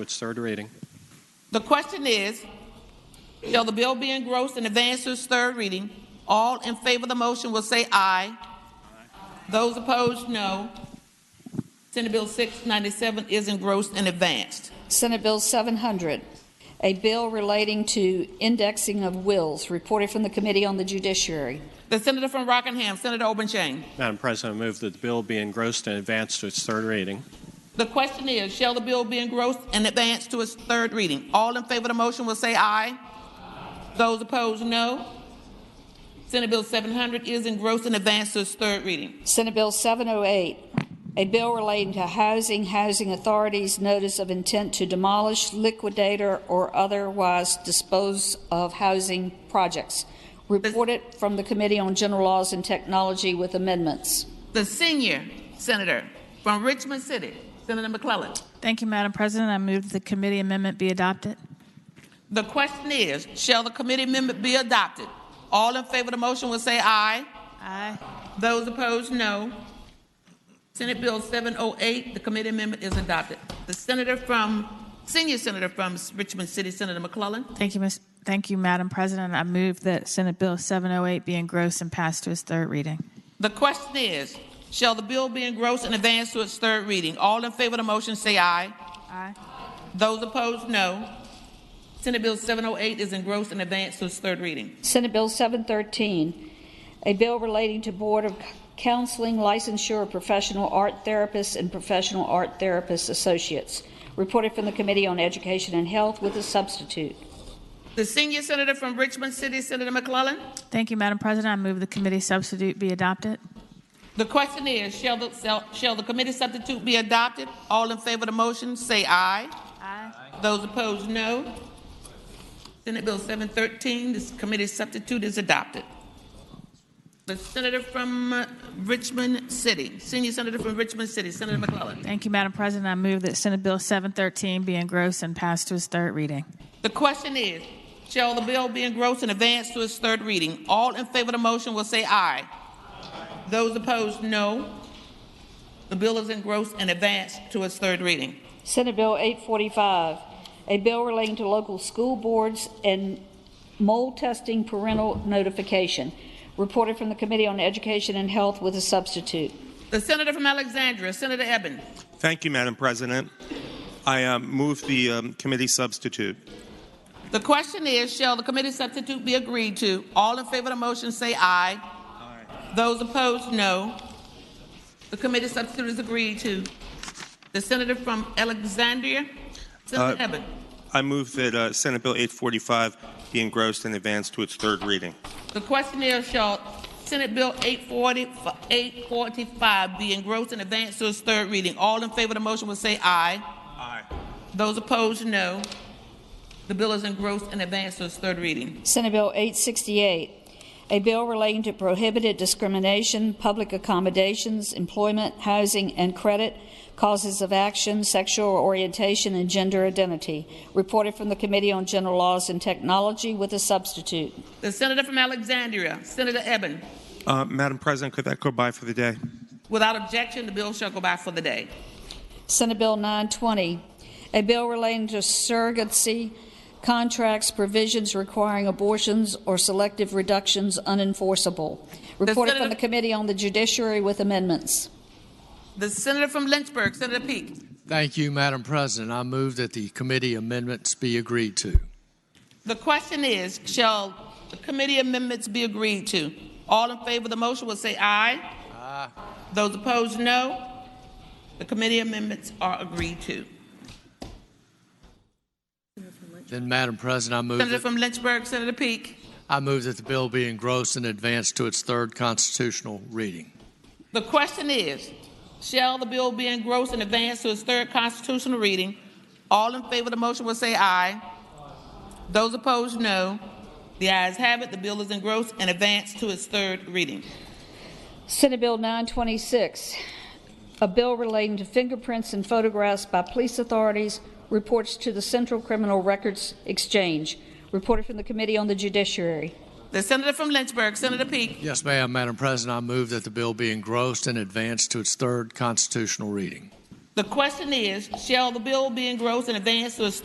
its third reading. The question is, shall the bill be engrossed and advanced to its third reading? All in favor of the motion will say aye. Those opposed, no. Senate Bill 697 is engrossed and advanced. Senate Bill 700, a bill relating to indexing of wills, reported from the Committee on the Judiciary. The Senator from Rockingham, Senator Obenchain. Madam President, I move that the bill be engrossed and advanced to its third reading. The question is, shall the bill be engrossed and advanced to its third reading? All in favor of the motion will say aye. Those opposed, no. Senate Bill 700 is engrossed and advanced to its third reading. Senate Bill 708, a bill relating to housing, housing authorities' notice of intent to demolish, liquidate, or- or otherwise dispose of housing projects, reported from the Committee on General Laws and Technology with amendments. The senior senator from Richmond City, Senator McClellan. Thank you, Madam President. I move that the committee amendment be adopted. The question is, shall the committee amendment be adopted? All in favor of the motion will say aye. Aye. Those opposed, no. Senate Bill 708, the committee amendment is adopted. The senator from, senior senator from Richmond City, Senator McClellan. Thank you, Ms. Thank you, Madam President. I move that Senate Bill 708 be engrossed and passed to its third reading. The question is, shall the bill be engrossed and advanced to its third reading? All in favor of the motion say aye. Aye. Those opposed, no. Senate Bill 708 is engrossed and advanced to its third reading. Senate Bill 713, a bill relating to Board of Counseling Licensure of Professional Art Therapists and Professional Art Therapist Associates, reported from the Committee on Education and Health with a substitute. The senior senator from Richmond City, Senator McClellan. Thank you, Madam President. I move the committee substitute be adopted. The question is, shall the, shall, shall the committee substitute be adopted? All in favor of the motion, say aye. Aye. Those opposed, no. Senate Bill 713, this committee substitute is adopted. The senator from uh, Richmond City, senior senator from Richmond City, Senator McClellan. Thank you, Madam President. I move that Senate Bill 713 be engrossed and passed to its third reading. The question is, shall the bill be engrossed and advanced to its third reading? All in favor of the motion will say aye. Those opposed, no. The bill is engrossed and advanced to its third reading. Senate Bill 845, a bill relating to local school boards and mold testing parental notification, reported from the Committee on Education and Health with a substitute. The senator from Alexandria, Senator Eben. Thank you, Madam President. I um, move the um, committee substitute. The question is, shall the committee substitute be agreed to? All in favor of the motion say aye. Those opposed, no. The committee substitute is agreed to. The senator from Alexandria, Senator Uh, Eben. I move that uh, Senate Bill 845 be engrossed and advanced to its third reading. The question is, shall Senate Bill 840, 845 be engrossed and advanced to its third reading? All in favor of the motion will say aye. Aye. Those opposed, no. The bill is engrossed and advanced to its third reading. Senate Bill 868, a bill relating to prohibited discrimination, public accommodations, employment, housing, and credit, causes of action, sexual orientation, and gender identity, reported from the Committee on General Laws and Technology with a substitute. The senator from Alexandria, Senator Eben. Uh, Madam President, could that go by for the day? Without objection, the bill shall go by for the day. Senate Bill 920, a bill relating to surrogacy contracts, provisions requiring abortions or selective reductions unenforceable, reported Senate- from the Committee on the Judiciary with amendments. The senator from Lynchburg, Senator Peake. Thank you, Madam President. I move that the committee amendments be agreed to. The question is, shall the committee amendments be agreed to? All in favor of the motion will say aye. Aye. Those opposed, no. The committee amendments are agreed to. Then, Madam President, I move, Senator that, from Lynchburg, Senator Peake. I move that the bill be engrossed and advanced to its third constitutional reading. The question is, shall the bill be engrossed and advanced to its third constitutional reading? All in favor of the motion will say aye. Those opposed, no. The ayes have it. The bill is engrossed and advanced to its third reading. Senate Bill 926, a bill relating to fingerprints and photographs by police authorities, reports to the Central Criminal Records Exchange, reported from the Committee on the Judiciary. The senator from Lynchburg, Senator Peake. Yes, ma'am, Madam President, I move that the bill be engrossed and advanced to its third constitutional reading. The question is, shall the bill be engrossed and advanced to its